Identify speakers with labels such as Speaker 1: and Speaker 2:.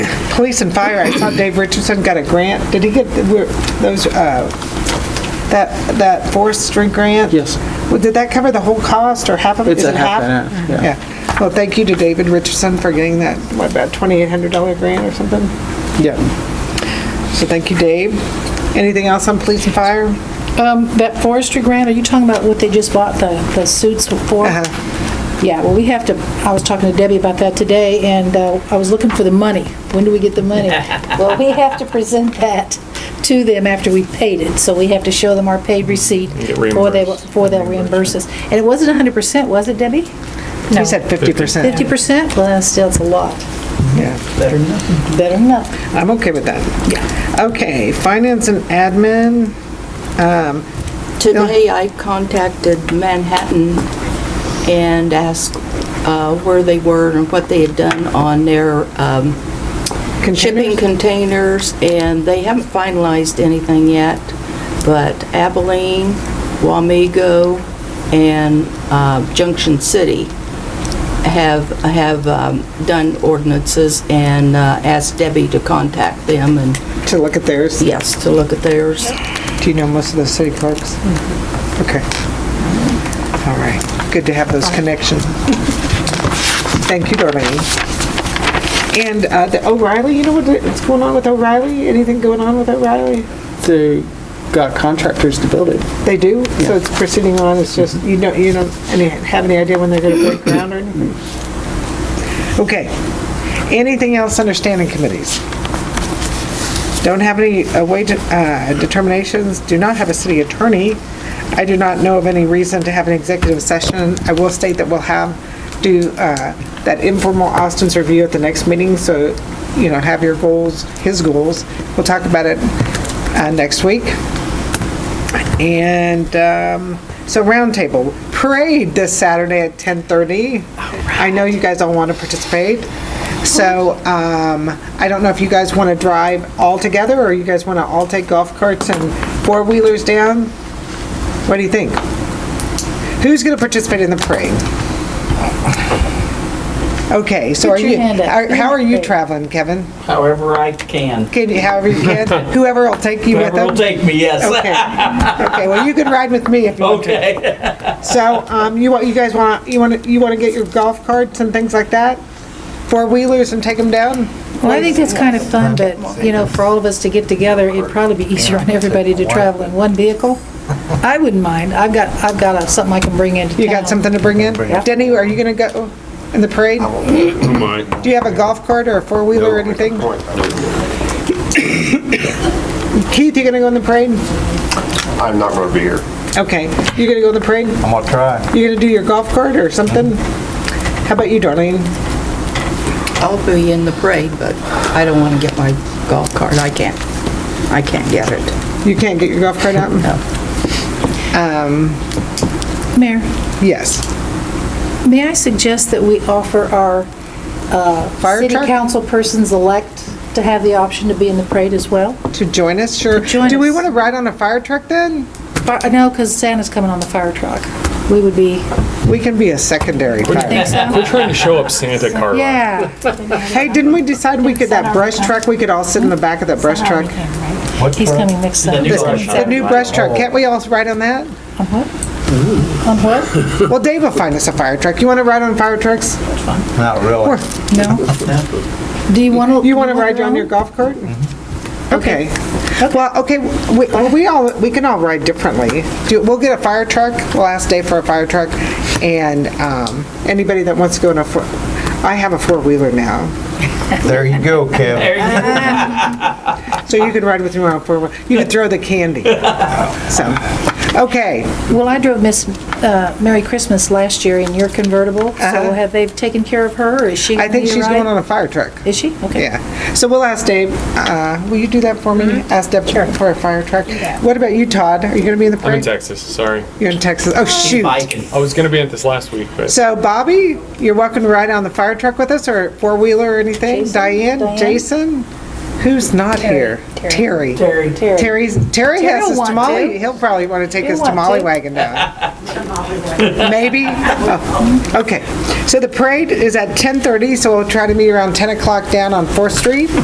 Speaker 1: police and fire, I saw Dave Richardson got a grant. Did he get the- were those, uh, that, that forestry grant?
Speaker 2: Yes.
Speaker 1: Well, Did that cover the whole cost or half of it?
Speaker 2: It's
Speaker 1: Is
Speaker 2: a
Speaker 1: it
Speaker 2: half and half, yeah.
Speaker 1: Well, thank you to David Richardson for getting that, what, about $2,800 grant or something?
Speaker 2: Yeah.
Speaker 1: So thank you, Dave. Anything else on police and fire?
Speaker 3: Um, That forestry grant, are you talking about what they just bought the the suits for?
Speaker 1: Uh-huh.
Speaker 3: Yeah, well, we have to, I was talking to Debbie about that today, and uh, I was looking for the money. When do we get the money? Well, we have to present that to them after we paid it, so we have to show them our paid receipt.
Speaker 4: get
Speaker 3: before they-
Speaker 4: reimbursed.
Speaker 3: Before they'll reimburse us. And it wasn't 100%, was it, Debbie?
Speaker 1: You said 50%.
Speaker 3: 50%? Well, still, it's a lot.
Speaker 1: Yeah,
Speaker 3: Better than nothing.
Speaker 1: I'm okay with that. Yeah. Okay, finance and admin,
Speaker 5: Today, I contacted Manhattan and asked uh, where they were and what they had done on their um, shipping
Speaker 1: containers?
Speaker 5: containers, and they haven't finalized anything yet, but Abilene, Wamego, and uh, Junction City have, have um, done ordinances and uh, asked Debbie to contact them, and
Speaker 1: to look at theirs.
Speaker 5: yes, to look at theirs.
Speaker 1: Do you know most of the city clerks? Okay. All right, good to have those connections. Thank you, Darlene. And uh, the O'Reilly, you know what- what's going on with O'Reilly? Anything going on with O'Reilly?
Speaker 2: They got contractors to build it.
Speaker 1: They do? So it's proceeding on, it's just, you know, you don't any- have any idea when they're going to break ground or anything? Mm-hmm. Okay. Anything else under standing committees? Don't have any uh, wage uh, determinations, do not have a city attorney. I do not know of any reason to have an executive session. I will state that we'll have, do uh, that informal Austin's review at the next meeting, so, you know, have your goals, his goals. We'll talk about it uh, next week. And um, so roundtable parade this Saturday at 10:30. I know you guys all want to participate. So um, I don't know if you guys want to drive all together or you guys want to all take golf carts and four wheelers down. What do you think? Who's going to participate in the parade? Okay, so
Speaker 3: Put
Speaker 1: are
Speaker 3: your
Speaker 1: you?
Speaker 3: hand up.
Speaker 1: are- How are you
Speaker 3: Okay.
Speaker 1: traveling, Kevin?
Speaker 6: however I can.
Speaker 1: Can you, however you can, whoever will take you with
Speaker 6: Whoever
Speaker 1: them.
Speaker 6: will take me,
Speaker 1: Okay.
Speaker 6: yes.
Speaker 1: Okay. Well, you can ride with me
Speaker 3: Oh,
Speaker 1: if you want to.
Speaker 6: Okay.
Speaker 1: So, um, you want, you guys want, you want, to you want to get your golf carts and things like that? Four-wheelers and take them down?
Speaker 3: Well, I think that's kind of fun, but, you know, for all of us to get together, it'd probably be easier on everybody to travel in one vehicle. I wouldn't mind. I've got, I've got a- something I can bring into town.
Speaker 1: You got something to bring in? Denny, are you gonna go in the parade?
Speaker 4: Oh, my.
Speaker 1: Do you have a golf cart or a four-wheeler or anything? Keith, you gonna go in the parade?
Speaker 7: I'm not going to be here.
Speaker 1: Okay, you gonna go in the parade?
Speaker 8: I'm gonna try.
Speaker 1: You gonna do your golf cart or something? How about you, Darlene?
Speaker 5: I'll be in the parade, but I don't want to get my golf cart. I can't, I can't get it.
Speaker 1: You can't get your golf cart out?
Speaker 3: Mayor,
Speaker 1: Yes.
Speaker 3: may I suggest that we offer our uh,
Speaker 1: Fire
Speaker 3: city
Speaker 1: truck?
Speaker 3: council persons elect to have the option to be in the parade as well?
Speaker 1: To join us, sure.
Speaker 3: join
Speaker 1: Do we
Speaker 3: us.
Speaker 1: wanna ride on a fire truck then?
Speaker 3: Fi- No, because Santa's coming on the fire truck. We would be,
Speaker 1: We can be a secondary fire.
Speaker 3: think so?
Speaker 4: We're trying to show up Santa Carla.
Speaker 3: Yeah.
Speaker 1: Hey, didn't we decide we could, that brush truck, we could all sit in the back of that brush truck?
Speaker 8: What
Speaker 3: He's
Speaker 8: truck?
Speaker 3: coming next
Speaker 6: The
Speaker 3: Sunday.
Speaker 6: new
Speaker 3: On
Speaker 6: brush
Speaker 1: The new brush truck, can't we all ride on that?
Speaker 3: what?
Speaker 1: Well, Dave will find us a fire truck. You want to ride on fire trucks?
Speaker 8: Not really.
Speaker 3: No? Do you want to?
Speaker 1: You want to ride on your golf cart? Okay. Well, okay, we, well, we all, we can all ride differently. Do- We'll get a fire truck, we'll ask Dave for a fire truck, and um, anybody that wants to go in a four, I have a four-wheeler now,
Speaker 8: There you go, Kev.
Speaker 1: so you can ride with me on a four-wheeler. You can throw the candy. So, okay.
Speaker 3: Well, I drove Miss uh, Merry Christmas last year in your convertible, so
Speaker 1: Uh-huh.
Speaker 3: have they taken care of her, or is she?
Speaker 1: I
Speaker 3: gonna
Speaker 1: think
Speaker 3: be
Speaker 1: she's
Speaker 3: alright?
Speaker 1: going on a fire truck.
Speaker 3: Is she? Okay.
Speaker 1: Yeah, so we'll ask Dave, uh, will you do that for me? Ask Deb for a fire truck? What about you, Todd? Are you gonna be in the
Speaker 4: I'm in
Speaker 1: parade?
Speaker 4: Texas, sorry.
Speaker 1: You're in Texas, oh shoot.
Speaker 6: Biking.
Speaker 4: I was gonna be at this last week, but
Speaker 1: So Bobby, you're welcome to ride on the fire truck with us, or four-wheeler or anything?
Speaker 3: Jason?
Speaker 1: Diane,
Speaker 3: Diane?
Speaker 1: Jason? Who's not here? Terry.
Speaker 6: Terry.
Speaker 1: Terry's, Terry
Speaker 3: Terry'll
Speaker 1: has his
Speaker 3: want
Speaker 1: tamale,
Speaker 3: to.
Speaker 1: he'll probably wanna take
Speaker 3: He'll
Speaker 1: his
Speaker 3: want
Speaker 1: tamale
Speaker 3: to.
Speaker 1: wagon down. Maybe? Oh, Okay, so the parade is at 10:30, so we'll try to meet around 10 o'clock down on Fourth Street.